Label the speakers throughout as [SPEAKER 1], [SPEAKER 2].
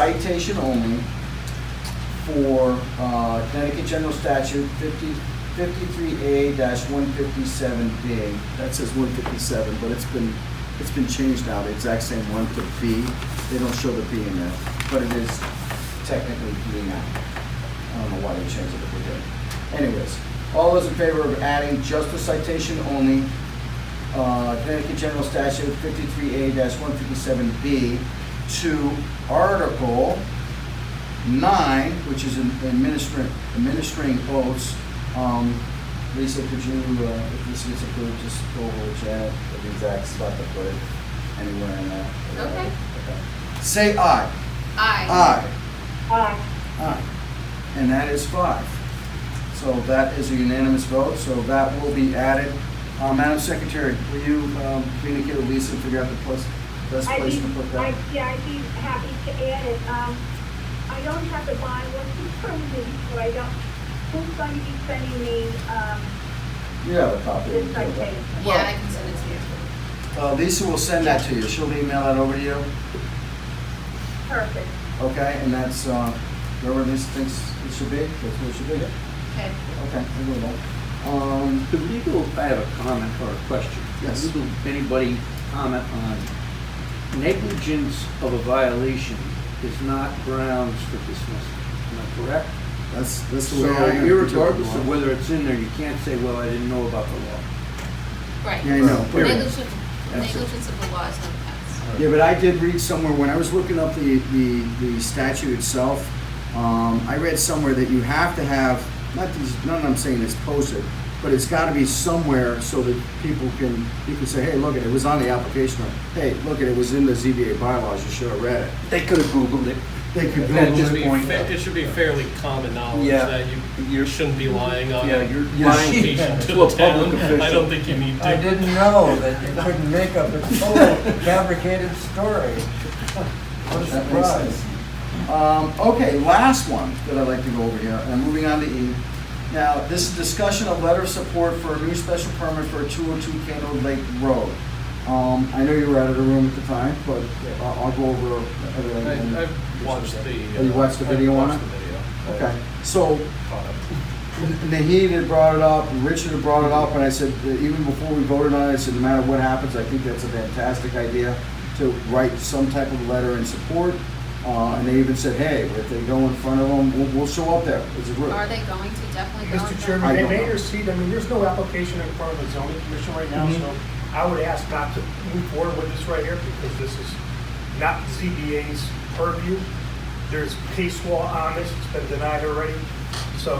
[SPEAKER 1] citation only for uh, Connecticut General Statute 50 53A-157B.
[SPEAKER 2] That says one fifty-seven, but it's been, it's been changed now, the exact same one to B. They don't show the B in there.
[SPEAKER 1] but it is technically B now. I don't know why they changed it, but they did. Anyways, all those in favor of adding just the citation only, uh, Connecticut General Statute fifty-three A one fifty-seven B to Article nine, which is in- administering, administering oaths. Um, Lisa, could you, uh, if this gets approved, just go over to Janet, the exact spot to put it, anywhere in there.
[SPEAKER 3] Okay.
[SPEAKER 1] Okay. Say aye.
[SPEAKER 3] Aye.
[SPEAKER 1] Aye.
[SPEAKER 4] Um,
[SPEAKER 1] Aye. And that is five. So that is a unanimous vote, so that will be added. Uh, Madam Secretary, will you um, communicate with Lisa and figure out the place- best
[SPEAKER 4] I'd
[SPEAKER 1] place to
[SPEAKER 4] be-
[SPEAKER 1] put
[SPEAKER 4] I'd-
[SPEAKER 1] that?
[SPEAKER 4] Yeah, I'd be happy to add it. Um, I don't have the bond, what's the permanent, so I don't, who's going to be sending me, um,
[SPEAKER 1] You have a copy.
[SPEAKER 4] this citation?
[SPEAKER 3] Yeah, and I can send it to you.
[SPEAKER 1] Uh, Lisa will send that to you. She'll email that over to you,
[SPEAKER 4] Perfect.
[SPEAKER 1] okay? And that's, uh, wherever Lisa thinks it should be, that's where it should be.
[SPEAKER 3] Okay.
[SPEAKER 1] Okay, I'll do that. Um,
[SPEAKER 5] The legal, I have a comment or a question.
[SPEAKER 1] Yes.
[SPEAKER 5] Legal, Anybody comment on negligence of a violation is not grounds for dismissal, am I correct?
[SPEAKER 2] That's, that's the way. I
[SPEAKER 5] So
[SPEAKER 2] interpret
[SPEAKER 5] irregardless
[SPEAKER 2] the
[SPEAKER 5] of
[SPEAKER 2] law.
[SPEAKER 5] whether it's in there, you can't say, well, I didn't know about the law.
[SPEAKER 3] Right.
[SPEAKER 2] Yeah, I know.
[SPEAKER 5] Period.
[SPEAKER 3] Negligence,
[SPEAKER 5] That's it.
[SPEAKER 3] negligence of the law is not a pass.
[SPEAKER 2] Yeah, but I did read somewhere, when I was looking up the, the, the statute itself, um, I read somewhere that you have to have, not these, none of them saying it's posted, but it's gotta be somewhere so that people can, you can say, hey, look, it was on the application, or, hey, look, it was in the ZBA bylaws, you should have read it.
[SPEAKER 5] They could have Googled it.
[SPEAKER 2] They could
[SPEAKER 5] That
[SPEAKER 2] Google
[SPEAKER 5] just
[SPEAKER 2] it.
[SPEAKER 6] It should be
[SPEAKER 5] point
[SPEAKER 6] fa-
[SPEAKER 5] out.
[SPEAKER 6] It should be fairly common knowledge
[SPEAKER 5] Yeah.
[SPEAKER 6] that you, you shouldn't be lying on
[SPEAKER 5] Yeah,
[SPEAKER 6] your
[SPEAKER 5] you're lying
[SPEAKER 6] location to
[SPEAKER 5] to a
[SPEAKER 6] the
[SPEAKER 5] public
[SPEAKER 6] town. I
[SPEAKER 5] official.
[SPEAKER 6] don't think you need to.
[SPEAKER 7] I didn't know that you couldn't make up a total
[SPEAKER 2] Oh,
[SPEAKER 7] fabricated story. What a
[SPEAKER 1] That makes
[SPEAKER 7] surprise.
[SPEAKER 1] sense. Um, okay, last one that I'd like to go over here, and moving on to E. Now, this is discussion of letter of support for a new special permit for two oh two Candle Lake Road. Um, I know you were out of the room at the time, but I'll, I'll go over everything. and-
[SPEAKER 6] I- I've watched the.
[SPEAKER 1] Oh, you
[SPEAKER 6] uh,
[SPEAKER 1] watched the
[SPEAKER 6] I've
[SPEAKER 1] video on
[SPEAKER 6] watched
[SPEAKER 1] it?
[SPEAKER 6] the video.
[SPEAKER 1] Okay, so
[SPEAKER 6] Caught up.
[SPEAKER 1] Naheed had brought it up, Richard had brought it up, and I said, uh, even before we voted on it, I said, no matter what happens, I think that's a fantastic idea to write some type of letter in support. Uh, and they even said, hey, if they go in front of them, we'll, we'll show up there as a group.
[SPEAKER 3] Are they going to definitely go?
[SPEAKER 8] Mr.
[SPEAKER 1] I
[SPEAKER 8] Chairman, they
[SPEAKER 1] don't
[SPEAKER 8] may
[SPEAKER 1] know.
[SPEAKER 8] receive, I mean, there's no application in front of the zoning commission right now, so I would ask not to move forward with this right here because this is not ZBA's purview. There's case law on this, it's been denied already. So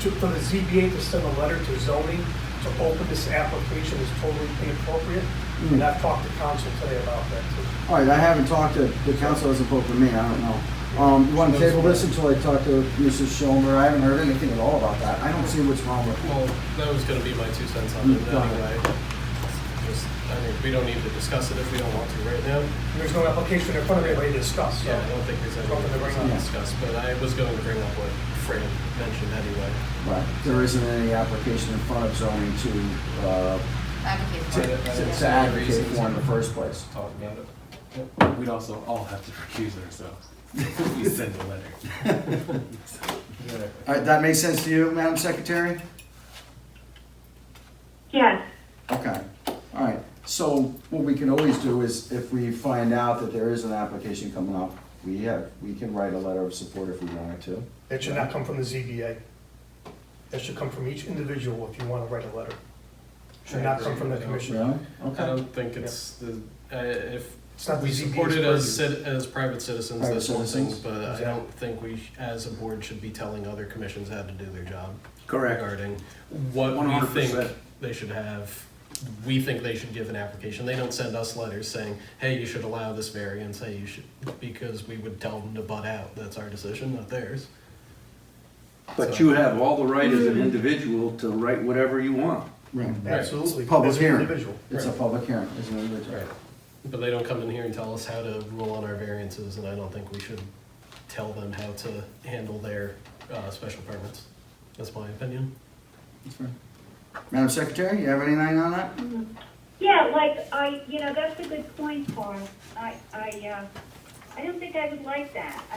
[SPEAKER 8] to, for the ZBA to send a letter to zoning to open this application is totally inappropriate. And I've talked to council today about that too.
[SPEAKER 1] All right, I haven't talked to, the council hasn't spoken to me, I don't know. Um, you wanna table this until I talk to Mrs. Schomer, I haven't heard anything at all about that, I don't see what's wrong with it.
[SPEAKER 6] Well, that was gonna be my two cents on it
[SPEAKER 1] Go ahead.
[SPEAKER 6] anyway. Just, I mean, we don't need to discuss it if we don't want to right now.
[SPEAKER 8] There's no application in front of anybody to discuss, so.
[SPEAKER 6] Yeah, I don't think there's
[SPEAKER 8] Something to bring
[SPEAKER 6] anything to
[SPEAKER 8] up.
[SPEAKER 6] discuss, but I was going to bring up what Fran mentioned anyway.
[SPEAKER 1] Right, there isn't any application in front of zoning to, uh,
[SPEAKER 3] Advocate
[SPEAKER 1] to,
[SPEAKER 3] for it.
[SPEAKER 1] to to advocate for in the first place.
[SPEAKER 6] Talk about it.
[SPEAKER 9] We'd also all have to recuse ourselves. if We send a letter.
[SPEAKER 1] All right, that makes sense to you, Madam Secretary?
[SPEAKER 4] Yes.
[SPEAKER 1] Okay, all right. So what we can always do is if we find out that there is an application coming up, we have, we can write a letter of support if we wanted to.
[SPEAKER 8] That should not come from the ZBA. That should come from each individual if you want to write a letter. Should not come from the commission.
[SPEAKER 1] Really?
[SPEAKER 6] I
[SPEAKER 1] Okay.
[SPEAKER 6] don't think it's the, I- if
[SPEAKER 8] It's not the
[SPEAKER 6] we
[SPEAKER 8] ZBA's
[SPEAKER 6] support it as,
[SPEAKER 8] purview.
[SPEAKER 6] cit- as private citizens,
[SPEAKER 1] Private
[SPEAKER 6] that's one thing,
[SPEAKER 1] citizens.
[SPEAKER 6] but I
[SPEAKER 8] Exactly.
[SPEAKER 6] don't think we, sh- as a board, should be telling other commissions how to do their job.
[SPEAKER 5] Correct.
[SPEAKER 6] Regarding what we
[SPEAKER 5] 100%.
[SPEAKER 6] think they should have, we think they should give an application. They don't send us letters saying, hey, you should allow this variance, hey, you should, because we would tell them to butt out. That's our decision, not theirs.
[SPEAKER 5] But you have all the right as an individual to write whatever you want.
[SPEAKER 1] Right.
[SPEAKER 8] Absolutely.
[SPEAKER 1] Public
[SPEAKER 8] That's an
[SPEAKER 1] hearing.
[SPEAKER 8] Individual.
[SPEAKER 1] It's a public hearing, it's an individual.
[SPEAKER 6] Right. But they don't come in here and tell us how to rule on our variances, and I don't think we should tell them how to handle their uh, special permits. That's my opinion.
[SPEAKER 1] That's fine. Madam Secretary, you have anything on that?
[SPEAKER 4] Yeah, like, I, you know, that's a good point, Paul. I, I, uh, I don't think I would like that.